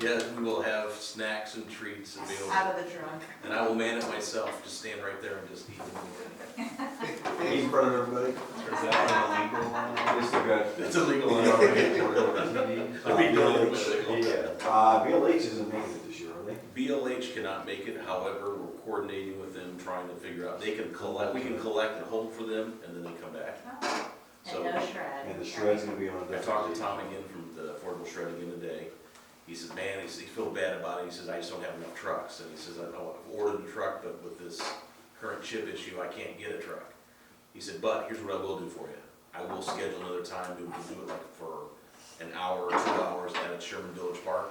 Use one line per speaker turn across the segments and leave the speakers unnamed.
Yeah, we will have snacks and treats available.
Out of the trunk.
And I will man it myself, just stand right there and just eat them.
In front of everybody.
Is that an illegal one?
Just a good.
It's illegal.
Yeah,
all right.
Uh,
We don't
BLH,
really want
Yeah, uh, BLH isn't making it this year, are they?
BLH cannot make it, however, we're coordinating with them, trying to figure out, they can collect, we can collect and hold for them, and then they come back.
And
So,
no shred.
And the shred's gonna be on. a
I
different
talked to
day.
Tom again from the Affordable Shred again today. He says, man, he says, he feel bad about it, he says, I just don't have enough trucks, and he says, I know, I've ordered a truck, but with this current chip issue, I can't get a truck. He said, but here's what I will do for you, I will schedule another time, we will do it like for an hour or two hours at a Sherman Village Park.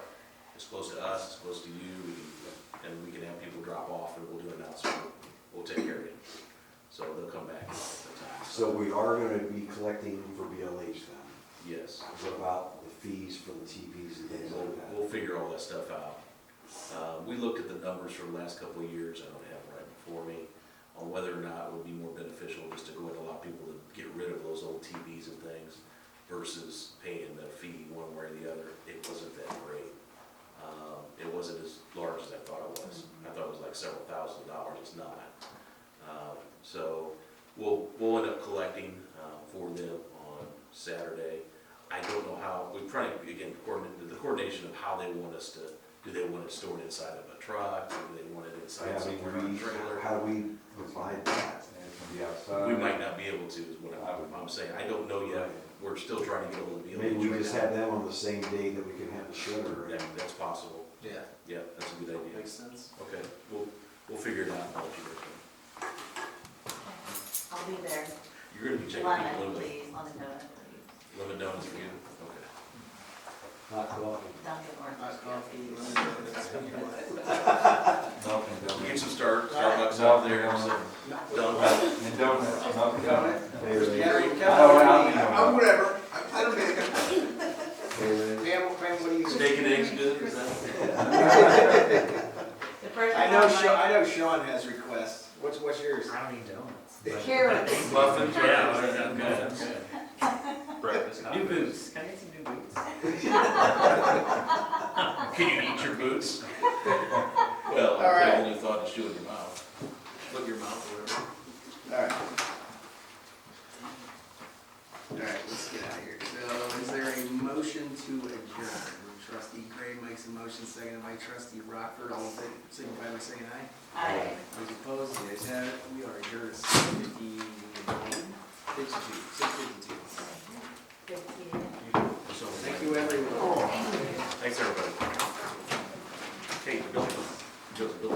It's close to us, it's close to you, we can- and we can have people drop off, and we'll do an announcement, we'll take care of it. So they'll come back at the time,
So we are gonna be collecting for BLH then.
yes.
What about the fees for the TVs and things
We'll,
like that?
we'll figure all that stuff out. Uh, we looked at the numbers for the last couple of years, I don't have it right before me, on whether or not it would be more beneficial just to go ahead and allow people to get rid of those old TVs and things versus paying the fee one way or the other. It wasn't that great. Um, it wasn't as large as I thought it was.
Mm-hmm.
I thought it was like several thousand dollars, it's not. Um, so we'll, we'll end up collecting, uh, for them on Saturday. I don't know how, we're trying, again, coordinate, the coordination of how they want us to, do they want it stored inside of a truck? Do they want it
Yeah,
inside
I mean,
somewhere in a
we-
trailer?
How do we provide that? It can be outside.
We might not be able to, is what I'm, I'm saying. I don't know yet. We're still trying to get all the BLH.
Maybe we
right
just
now.
have them on the same day that we can have the shredder.
That, that's possible.
Yeah,
Yeah, that's a good idea.
makes sense.
Okay, we'll, we'll figure it out. and I'll let you know.
I'll be there.
You're gonna be checking
Lemon,
people,
please, lemon donut, please.
lemon donuts for you? Okay.
Not coffee.
Dunkin' orange cookies.
Dunkin'
We
Donuts.
Get some Star, Starbucks out there, some Dunkin'.
And donuts, Dunkin' Donuts.
Gatorade,
I'm
whatever, I don't make
Gatorade.
what do you?
Steak and eggs good, is that?
The person
I know
on my-
Sean, I know Sean has requests. What's, what's yours?
I don't need donuts.
Carrots.
Muffins.
Yeah, okay, okay.
Breakfast.
New boots.
Can I get some new boots?
Can you eat your boots? Well, I
All right.
only thought to chew in your mouth. Put your mouth or whatever.
Alright. Alright, let's get out of here. So is there a motion to adjourn? Trustee Gray makes a motion, seconded by trustee Rockford. All in favor, signify by saying aye.
I-
Those opposed, the ayes have it. We are adjourned at six fifty-one, fifty-two, six fifty-two.
Fifteen.
So,
Thank you, everyone.
Thanks, everybody. Hey, Bill, Bill, Bill.